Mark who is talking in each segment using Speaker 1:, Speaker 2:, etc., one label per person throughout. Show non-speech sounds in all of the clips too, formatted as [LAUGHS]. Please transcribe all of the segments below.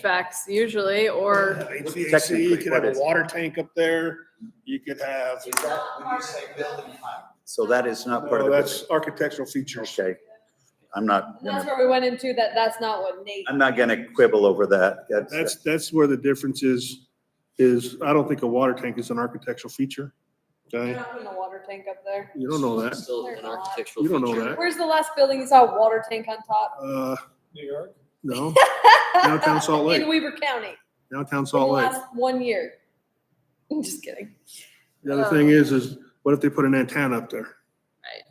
Speaker 1: HVACs usually, or,
Speaker 2: HVAC, you
Speaker 3: Technically,
Speaker 2: could
Speaker 3: what
Speaker 2: have a
Speaker 3: is it?
Speaker 2: water tank up there, you could have,
Speaker 4: Is that when you say building height?
Speaker 3: So that is not part
Speaker 2: no,
Speaker 3: of
Speaker 2: that's
Speaker 3: the,
Speaker 2: architectural features.
Speaker 3: okay. I'm not,
Speaker 1: that's
Speaker 3: gonna-
Speaker 1: where we went into that, that's not what Nate.
Speaker 3: I'm not gonna quibble over that.
Speaker 2: That's,
Speaker 3: That's,
Speaker 2: that's where the difference is, is I don't think a water tank is an architectural feature.
Speaker 1: They're
Speaker 2: Okay,
Speaker 1: not putting a water tank up there.
Speaker 2: you don't know that.
Speaker 5: Still
Speaker 1: There's
Speaker 5: an
Speaker 1: a lot.
Speaker 5: architectural
Speaker 2: You don't know
Speaker 5: feature.
Speaker 2: that.
Speaker 1: Where's the last building you saw a water tank on top?
Speaker 2: Uh,
Speaker 4: New York?
Speaker 1: [LAUGHS]
Speaker 2: no, Downtown Salt Lake.
Speaker 1: In Weaver County,
Speaker 2: downtown
Speaker 1: in the
Speaker 2: Salt Lake.
Speaker 1: last one year. [LAUGHS] I'm just kidding.
Speaker 2: The other thing is, is what if they put an antenna up there?
Speaker 1: uh, Right.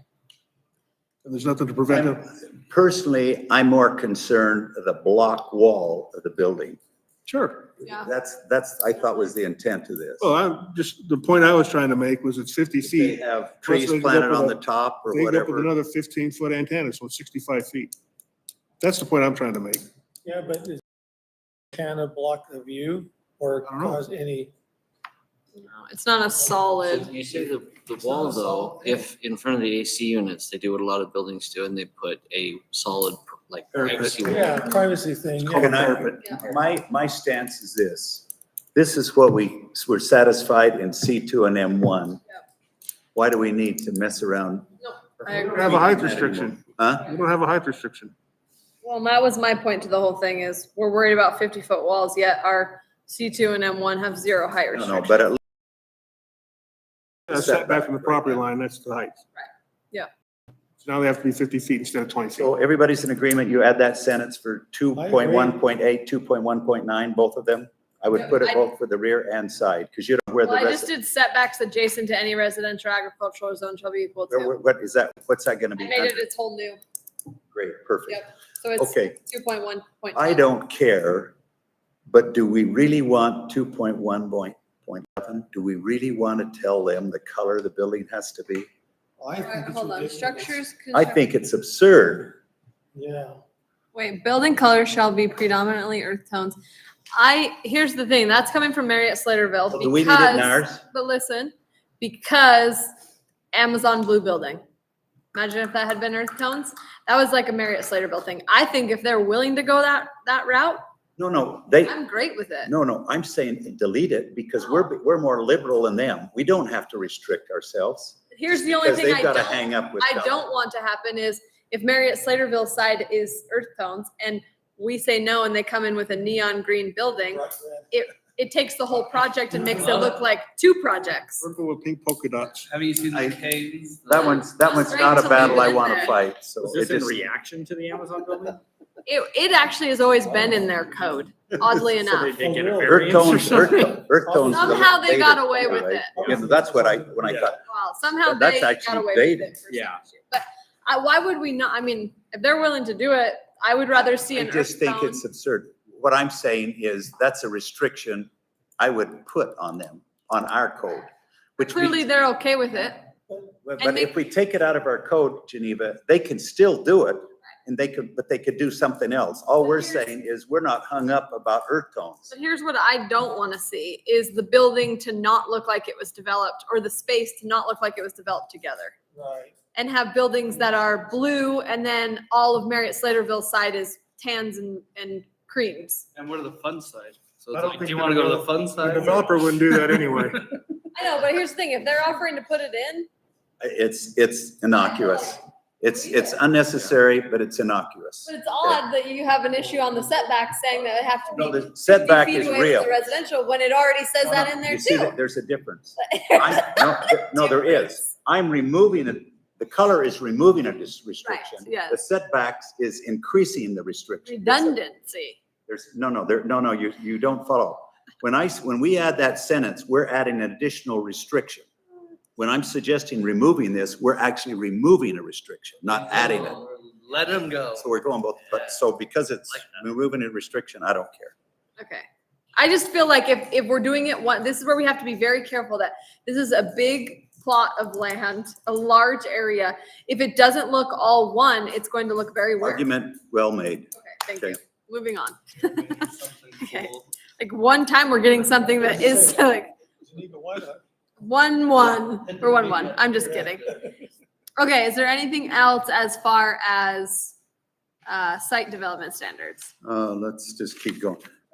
Speaker 2: And there's nothing to prevent them.
Speaker 3: personally, I'm more concerned of the block wall of the building.
Speaker 2: Sure.
Speaker 1: Yeah.
Speaker 3: That's, that's, I thought was the intent of this.
Speaker 2: Well, I'm just, the point I was trying to make was it's fifty
Speaker 3: If They
Speaker 2: feet.
Speaker 3: have
Speaker 2: Plus
Speaker 3: trees
Speaker 2: they can go
Speaker 3: planted
Speaker 2: up
Speaker 3: on
Speaker 2: with
Speaker 3: the top or
Speaker 2: They go up with
Speaker 3: whatever.
Speaker 2: another fifteen foot antenna, so it's sixty-five feet. That's the point I'm trying to make.
Speaker 6: Yeah, but is- can it block the view or
Speaker 2: I don't know.
Speaker 6: cause any?
Speaker 1: It's not a solid.
Speaker 5: You say the, the wall though, if in front of the AC units, they do what a lot of buildings do and they put a solid like
Speaker 3: Parapet.
Speaker 5: privacy
Speaker 6: Yeah,
Speaker 5: wall.
Speaker 6: privacy thing. yeah.
Speaker 3: Can I, my, my stance is this. This is what we, we're satisfied in C2 and M1. Why do we need to mess around?
Speaker 1: I
Speaker 2: We don't
Speaker 1: agree.
Speaker 2: have a height restriction.
Speaker 3: Huh?
Speaker 2: We don't have a height restriction.
Speaker 1: Well, and that was my point to the whole thing is we're worried about fifty foot walls, yet our C two and M one have zero height
Speaker 3: I don't
Speaker 1: restrictions.
Speaker 3: know, but at
Speaker 2: That's back from the property line, that's the height.
Speaker 1: Right. Yeah.
Speaker 2: So now they have to be fifty feet instead of twenty feet.
Speaker 3: So everybody's in agreement, you add that sentence for two point one point eight, two point one point nine, both of them? I would put it both for the rear and side, because you don't, where the
Speaker 1: Well, I just
Speaker 3: rest,
Speaker 1: did setbacks adjacent to any residential agricultural zone shall be equal to.
Speaker 3: where- what is that, what's that gonna
Speaker 1: I
Speaker 3: be?
Speaker 1: made it its whole new,
Speaker 3: Great, perfect.
Speaker 1: Yep. so it's
Speaker 3: Okay,
Speaker 1: two point one point.
Speaker 3: I don't care, but do we really want two point one point, point eleven? Do we really want to tell them the color the building has to be?
Speaker 6: I think it's
Speaker 1: Hold on,
Speaker 6: ridiculous.
Speaker 1: structures.
Speaker 3: I think it's absurd.
Speaker 6: Yeah.
Speaker 1: Wait, building color shall be predominantly earth tones. I, here's the thing, that's coming from Marriott Slaterville
Speaker 3: Do we need it in
Speaker 1: because,
Speaker 3: ours?
Speaker 1: but listen, because Amazon Blue Building. Imagine if that had been earth tones. That was like a Marriott Slaterville thing. I think if they're willing to go that, that route,
Speaker 3: No, no, they,
Speaker 1: I'm great with it.
Speaker 3: No, no, I'm saying delete it because we're, we're more liberal than them. We don't have to restrict ourselves.
Speaker 1: Here's the only
Speaker 3: because
Speaker 1: thing I
Speaker 3: They've got to
Speaker 1: don't,
Speaker 3: hang up with.
Speaker 1: I don't want to happen is if Marriott Slaterville's side is earth tones and we say no and they come in with a neon green building,
Speaker 6: right,
Speaker 1: it takes the whole project and makes it look like two projects.
Speaker 2: Purple with pink polka dots.
Speaker 7: Have you seen
Speaker 3: I-
Speaker 7: the Kings?
Speaker 3: That one's, that one's
Speaker 1: Just
Speaker 3: not a
Speaker 1: wait till
Speaker 3: battle
Speaker 1: they
Speaker 3: I
Speaker 1: get
Speaker 3: want to
Speaker 1: there.
Speaker 3: fight, so.
Speaker 7: Was
Speaker 3: it
Speaker 7: this in
Speaker 3: just-
Speaker 7: reaction to the Amazon building?
Speaker 1: It, it actually has always been in their
Speaker 3: [LAUGHS]
Speaker 1: code, oddly enough.
Speaker 7: They get a
Speaker 6: Oh, really?
Speaker 3: Earth
Speaker 7: variance or
Speaker 3: tones,
Speaker 7: [LAUGHS]
Speaker 3: earth,
Speaker 7: something?
Speaker 3: to- earth tones. is a
Speaker 1: Somehow they
Speaker 3: later
Speaker 1: got away
Speaker 3: thing,
Speaker 1: with
Speaker 3: right?
Speaker 1: it.
Speaker 3: Yeah, but that's what I, when I thought,
Speaker 1: Wow, somehow
Speaker 3: That's
Speaker 1: they got
Speaker 3: actually
Speaker 1: away with
Speaker 3: dated.
Speaker 1: it.
Speaker 7: Yeah.
Speaker 1: But I, why would we not, I mean, if they're willing to do it, I would rather see
Speaker 3: I
Speaker 1: an
Speaker 3: just
Speaker 1: earth
Speaker 3: think
Speaker 1: tone.
Speaker 3: it's absurd. What I'm saying is that's a restriction I would put on them, on our code, which we
Speaker 1: Clearly, they're okay with it.
Speaker 3: But
Speaker 1: And
Speaker 3: but
Speaker 1: they-
Speaker 3: if we take it out of our code, Geneva, they can still do it and they could, but they could do something else. All we're
Speaker 1: Here's-
Speaker 3: saying is we're not hung up about earth tones.
Speaker 1: But here's what I don't want to see is the building to not look like it was developed or the space to not look like it was developed together.
Speaker 6: Right.
Speaker 1: and have buildings that are blue and then all of Marriott Slaterville's side is tans and, and creams.
Speaker 7: And what are the fun side? So
Speaker 2: I
Speaker 7: it's
Speaker 2: don't
Speaker 7: like, do
Speaker 2: think
Speaker 7: you
Speaker 2: the
Speaker 7: want to go to the
Speaker 2: develop-
Speaker 7: fun
Speaker 2: The
Speaker 7: side?
Speaker 2: developer wouldn't do that
Speaker 3: [LAUGHS]
Speaker 2: anyway.
Speaker 1: I know, but here's the thing, if they're offering to put it in,
Speaker 3: It's, it's innocuous. It's, it's unnecessary, but it's innocuous.
Speaker 1: but it's odd that you have an issue on the setback saying that it have to be.
Speaker 3: No, the
Speaker 1: 50
Speaker 3: setback
Speaker 1: feet
Speaker 3: is
Speaker 1: away from
Speaker 3: real.
Speaker 1: The residential, when it already says
Speaker 3: No,
Speaker 1: that
Speaker 3: no,
Speaker 1: in there
Speaker 3: you see
Speaker 1: too.
Speaker 3: that There's a difference. I-
Speaker 1: [LAUGHS]
Speaker 3: No, th- no, there is. I'm removing it, the color is removing a dis- restriction.
Speaker 1: yes.
Speaker 3: The setbacks is increasing the restriction.
Speaker 1: Redundancy.
Speaker 3: There's, no, no, there, no, no, you, you don't follow. When I, s- when we add that sentence, we're adding an additional restriction. When I'm suggesting removing this, we're actually removing a restriction, not adding it.
Speaker 7: Let them go.
Speaker 3: So we're going both, but so because it's
Speaker 7: Like
Speaker 3: removing a restriction, I don't care.
Speaker 1: Okay. I just feel like if, if we're doing it one, this is where we have to be very careful that this is a big plot of land, a large area. If it doesn't look all one, it's going to look very weird.
Speaker 3: Argument well made.
Speaker 1: Okay, thank
Speaker 3: Okay.
Speaker 1: you. Moving on.
Speaker 7: Something
Speaker 1: Okay.
Speaker 7: cool.
Speaker 1: Like one time we're getting something that is [LAUGHS] like
Speaker 6: Geneva, why not?
Speaker 1: one, one, or one, one. I'm just kidding. Okay, is there anything else as far as uh, site development standards?
Speaker 3: Uh, let's just keep going.